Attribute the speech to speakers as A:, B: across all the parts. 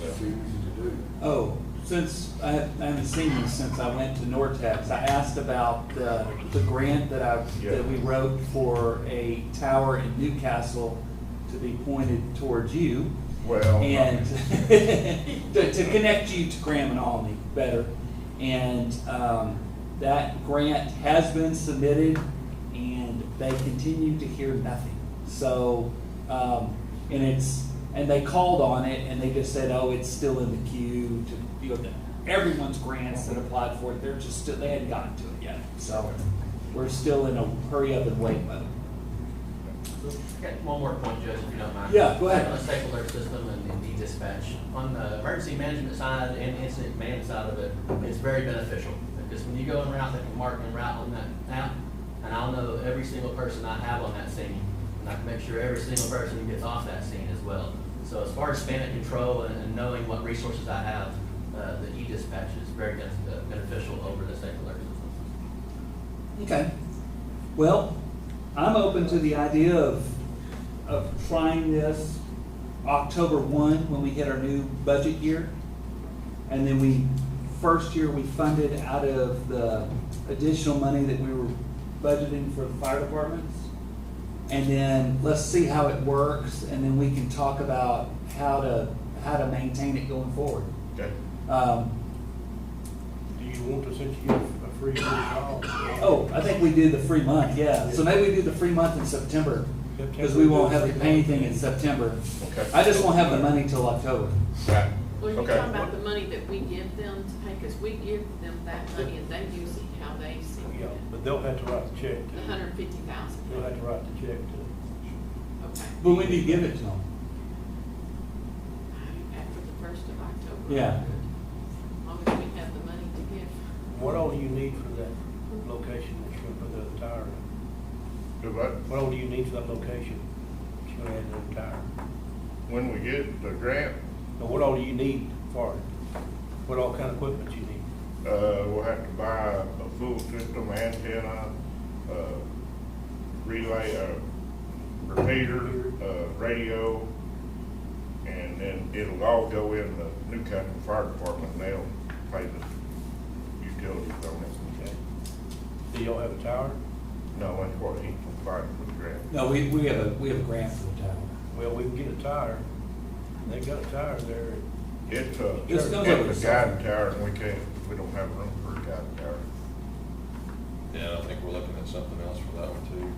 A: that's easy to do.
B: Oh, since, I haven't I haven't seen this since I went to Nortex, I asked about the, the grant that I,
A: Yeah.
B: that we wrote for a tower in Newcastle to be pointed towards you.
A: Well, I mean-
B: And to, to connect you to Graham and Alney better. And, um, that grant has been submitted and they continue to hear nothing. So, um, and it's, and they called on it and they just said, oh, it's still in the queue to, you know, everyone's grants that applied for it, they're just still, they hadn't gotten to it yet. So we're still in a hurry up and wait mode.
C: Got one more point, Judge, if you don't mind.
B: Yeah, go ahead.
C: On the state alert system and and e-dispatch, on the emergency management side and incident command side of it, it's very beneficial. Because when you go en route, they can mark en route on that app, and I'll know every single person I have on that scene. And I can make sure every single person gets off that scene as well. So as far as span of control and and knowing what resources I have, uh, the e-dispatch is very ben- uh, beneficial over the state alert system.
B: Okay. Well, I'm open to the idea of, of trying this October one, when we hit our new budget year. And then we, first year, we funded out of the additional money that we were budgeting for the fire departments. And then let's see how it works, and then we can talk about how to, how to maintain it going forward.
A: Okay.
B: Um,
D: Do you want to since you get a free year trial?
B: Oh, I think we do the free month, yeah. So maybe we do the free month in September, because we won't have to pay anything in September.
A: Okay.
B: I just won't have the money till October.
A: Right.
E: Well, you're
A: Okay.
E: talking about the money that we give them to pay, because we give them that money and they use it how they see
D: Yeah,
B: Oh,
E: it.
D: but they'll have to write the check
E: The
D: to,
E: hundred fifty thousand,
D: they'll have to write the check to.
E: okay,
B: But when do you give it to them?
E: after the first of October.
B: Yeah.
E: As long as we have the money to give.
D: What all do you need for that location that you're gonna put the tire in?
A: Do what?
D: What all do you need for that location that you're gonna add the tire?
A: When we get the grant,
D: Now, what all do you need for it? What all kind of equipment you need?
A: uh, we'll have to buy a full system antenna, uh, relay, uh, repeater, uh, radio, and then it'll all go in the Newcastle Fire Department, and they'll pay the utilities on it.
D: Okay. Do y'all have a tower?
A: No, that's what he provided for the grant.
B: No, we, we have a, we have a grant for the tower.
D: Well, we can get a tire. They got a tire there.
A: It's a, it's
B: This comes up with
A: a guide tower, and we can't, we don't have room for a guide tower.
F: Yeah, I think we're looking at something else for that one too.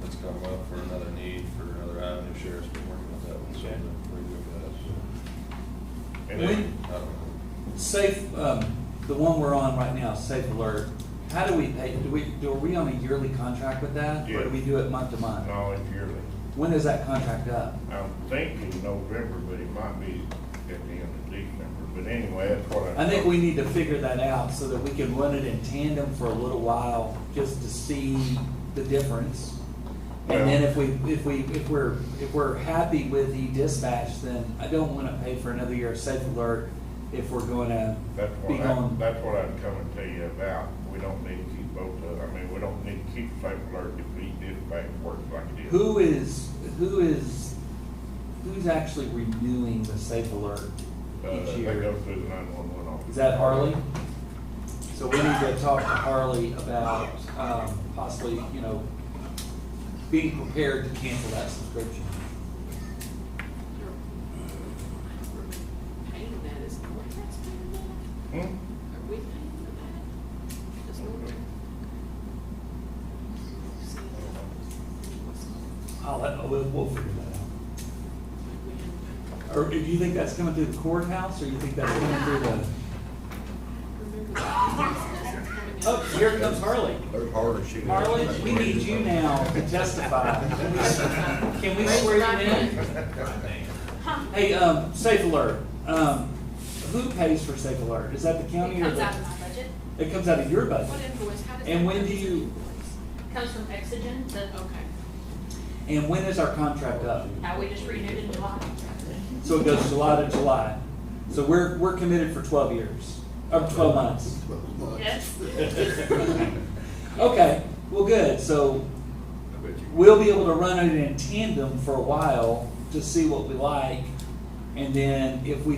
F: That's come up for another need for another avenue. Sheriff's been working on that one, so
D: Okay.
F: we're doing that.
A: And
B: When-
A: then-
F: I don't
B: Safe, um, the one we're on right now, Safe Alert, how do we pay, do we, do, are we on a yearly contract with that? Or
A: Yeah.
B: do we do it month to month?
A: No, it's yearly.
B: When is that contract up?
A: I'm thinking November, but it might be at the end of December, but anyway, that's what I.
B: I think we need to figure that out so that we can run it in tandem for a little while, just to see the difference. And then if we, if we, if we're, if we're happy with the dispatch, then I don't wanna pay for another year of safe alert if we're gonna
A: That's
B: be
A: what I,
B: going.
A: that's what I'm coming to you about. We don't need to keep both of, I mean, we don't need to keep safe alert if we did back work like it is.
B: Who is, who is, who's actually renewing the safe alert
A: Uh,
B: each
A: they go
B: year?
A: through the nine-one-one office.
B: Is that Harley? So we need to talk to Harley about, um, possibly, you know, being prepared to cancel that subscription.
E: You're- we're Paying that oh, is, are we guys paying
A: Hmm?
E: that? Are we paying for that? Does Norton? See,
B: I'll, let- we'll, we'll figure that out.
E: we haven't paid.
B: Or do you think that's coming through the courthouse, or you think that's coming through the?
E: Remember that business that's
B: Oh,
E: coming up.
B: here comes Harley.
G: There's hardly shooting.
B: Harley, we need you now to testify. Can we swear you in? Hey, um, Safe Alert, um, who pays for Safe Alert? Is that the county
H: It
B: or
H: comes out
B: the?
H: of my budget,
B: It comes out of your
E: What
B: budget.
E: invoice, how does that?
B: And when
E: come
B: do
E: to
B: you-
E: invoice?
H: comes from Exogen, that,
E: Okay.
B: And when is our contract up?
H: how we just renewed in July.
B: So it goes July to July. So we're, we're committed for twelve years, or twelve months.
H: Yes.
B: Okay, well, good. So we'll be able to run it in tandem for a while to see what we like. And then if we